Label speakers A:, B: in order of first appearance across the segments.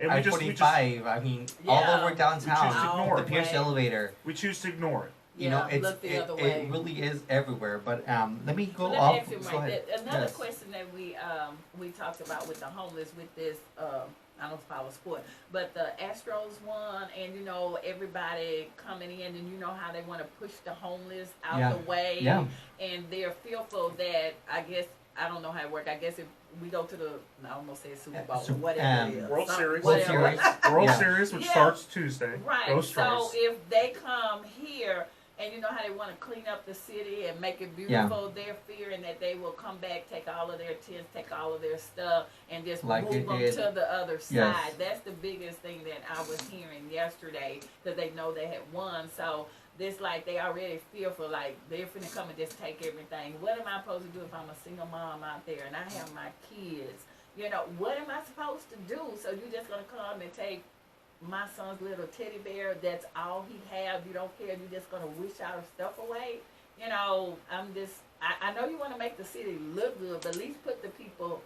A: And we
B: I
A: just, we
B: forty
A: just,
B: five. I mean, all
C: Yeah.
B: over
A: We just
B: downtown.
A: ignore
B: The
A: it.
B: Pierce
C: Way.
B: Elevator.
A: we choose to ignore it.
B: You know,
C: Yeah,
B: it's
C: look the
B: it,
C: other way.
B: it really is everywhere. But um, let me go
C: Let me
B: off.
C: ask you,
B: go
C: Mike,
B: ahead.
C: that- another
B: Yes.
C: question that we, um, we talked about with the homeless, with this, um, I don't follow sport, but the Astros won, and you know, everybody coming in, and you know how they wanna push the homeless
B: Yeah.
C: out the way.
B: Yeah.
C: And they're fearful that, I guess, I don't know how it worked, I guess if we go to the, I almost said Super
B: Uh,
C: Bowl,
B: Sup-
C: whatever
B: um,
C: it is.
A: World
C: some-
A: Series.
B: World
C: whatever.
B: Series.
A: World
B: Yeah.
A: Series, which
C: Yeah.
A: starts Tuesday. Go
C: Right. So
A: Stars.
C: if they come here and you know how they want to clean up the city and make it beautiful, they're fearing that they will come back, take all of their tents, take all of their stuff, and just
B: Like
C: move
B: it
C: them
B: did.
C: to the other side.
B: Yes.
C: That's the biggest thing that I was hearing yesterday because they know they had won. So this like they already fearful, like they're finna come and just take everything. What am I supposed to do if I'm a single mom out there and I have my kids? You know, what am I supposed to do? So you just gonna come and take my son's little teddy bear, that's all he have, you don't care, you're just gonna wish our stuff away. You know, I'm just I, I know you wanna make the city look good, but at least put the people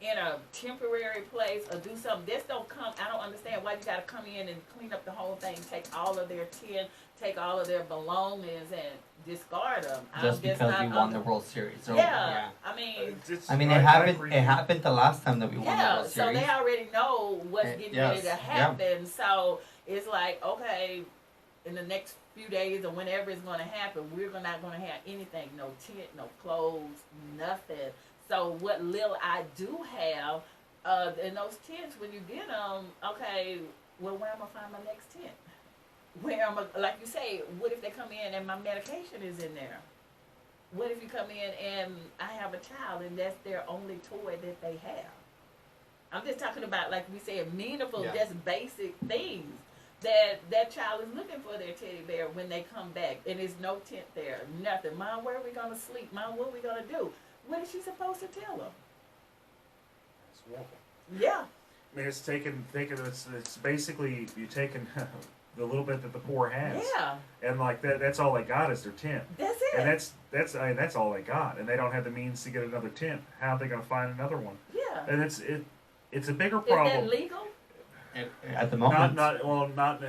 C: in a temporary place or do something. This don't come I don't understand why you gotta come in and clean up the whole thing, take all of their tin, take all of their belongings and discard them.
B: Just
C: I'm just
B: because
C: not
B: we won
C: under-
B: the World Series. So,
C: yeah, I mean
A: It's- it's-
B: I mean, it happened.
A: agree.
B: It happened the last time that we won the
C: Yeah,
B: World
C: so
B: Series.
C: they already know what's
B: Eh,
C: getting
B: yes,
C: ready to
B: yeah.
C: happen. So it's like, okay, in the next few days or whenever it's going to happen, we're gonna- not going to have anything no tent, no clothes, nothing. So what little I do have uh, in those tents, when you get them, okay, well, where am I going to find my next tent? Where am I, like you say, what if they come in and my medication is in there? What if you come in and I have a child and that's their only toy that they have? I'm just talking about like we said, meaningful,
B: Yeah.
C: just basic things that that child is looking for their teddy bear when they come back, and there's no tent there, nothing. Mom, where are we gonna sleep? Mom, what are we gonna do? What is she supposed to tell them?
A: It's awful.
C: Yeah,
A: I mean, it's taken, taken. It's it's basically you taking the little bit that the poor has,
C: yeah,
A: and like that. That's all they got is their tent,
C: that's
A: and
C: it.
A: that's that's I mean, that's all they got, and they don't have the means to get another tent. How are they going to find another one?
C: Yeah,
A: And it's it, it's a bigger
C: is
A: problem.
C: that legal?
B: at, at the
A: Not
B: moment.
A: not well not.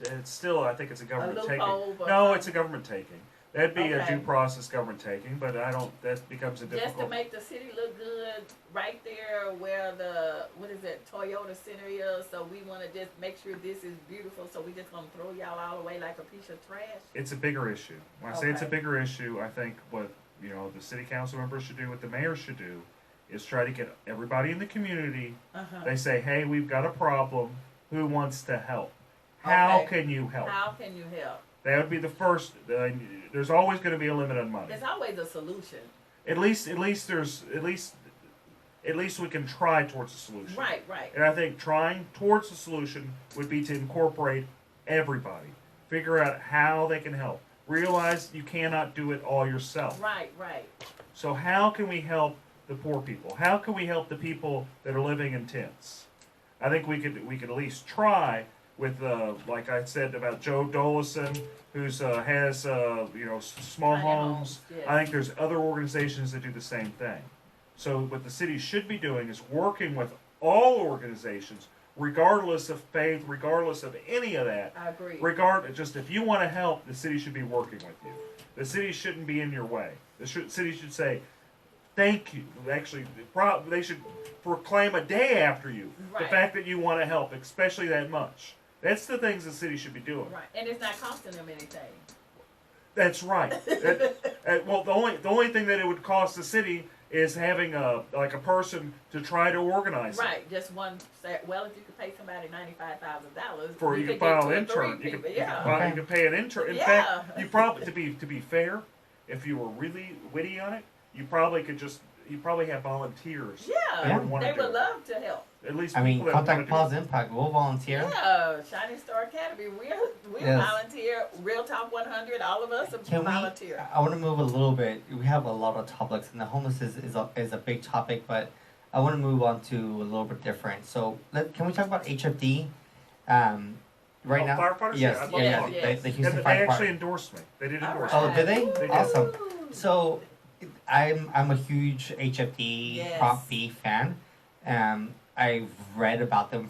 A: It's still I think it's a government
C: loophole,
A: taking.
C: but-
A: No, it's a government taking. That'd be a
C: Okay.
A: due process government taking, but I don't. That becomes a
C: Just to
A: difficult.
C: make the city look good, right there where the what is it, Toyota Center is. So we want to just make sure this is beautiful. So we just gonna throw y'all all away like a piece of trash.
A: It's a bigger issue. When I say it's a
C: Okay.
A: bigger issue, I think what you know the city council members should do, what the mayor should do, is try to get everybody in the community.
C: Uh huh.
A: They say, "Hey, we've got a problem. Who wants to help? How
C: Okay.
A: can you help?"
C: How can you help?
A: That would be the first. Uh, there's always going to be a limit on money.
C: There's always a solution.
A: At least, at least there's at least, at least we can try towards a solution.
C: Right, right.
A: And I think trying towards the solution would be to incorporate everybody, figure out how they can help. Realize you cannot do it all yourself.
C: Right, right.
A: So how can we help the poor people? How can we help the people that are living in tents? I think we could we could at least try with uh, like I said about Joe Dolison, who's uh, has uh, you know s- small
C: Tiny
A: homes.
C: homes, yes.
A: I think there's other organizations that do the same thing. So what the city should be doing is working with all organizations, regardless of faith, regardless of any of that,
C: I agree.
A: regard just if you want to help the city should be working with you the city shouldn't be in your way the sh- city should say thank you actually the pro- they should proclaim a day after you the
C: Right.
A: fact that you want to help especially that much that's the things the city should be doing
C: Right, and it's not costing them anything.
A: that's right That- that- well the only the only thing that it would cost the city is having a like a person to try to organize it.
C: Right, just one. Set. Well, if you could pay somebody ninety-five thousand dollars,
A: for you,
C: could
A: can file
C: get
A: an
C: two or
A: intern.
C: three
A: You can,
C: people,
A: you
C: yeah.
A: can file, you can pay an intern. In fact,
C: Yeah.
A: you probably to be to be fair, if you were really witty on it, you probably could just you probably have volunteers.
C: yeah,
A: They would wanna
C: they
A: do
C: would
A: it.
C: love to help.
A: At least
B: I mean,
A: people that wanna
B: contact
A: do it.
B: Paul's Impact. We'll volunteer.
C: Yeah, Shining Star Academy, we'll we'll
B: Yes.
C: volunteer. Real Top One Hundred, all of us
B: Can we?
C: volunteer.
B: I want to move a little bit. We have a lot of topics, and the homeless is, is, a, is a big topic, but I want to move on to a little bit different. So, let, can we talk about HFD? Um, right
A: Oh,
B: now,
A: firefighters? Yeah, I'd love
B: Yes, yeah,
C: to
B: yeah,
C: talk
B: the-
C: about
B: the, the
C: that.
A: Yeah,
B: Houston
A: but they
B: Fire
A: actually
B: Department.
A: endorsed me. They did
C: All
A: endorse
C: right.
B: Oh, did they?
C: Woo.
B: Awesome. So, I'm I'm a huge HFD
C: Yes.
B: Prop B fan. Um, I've read about them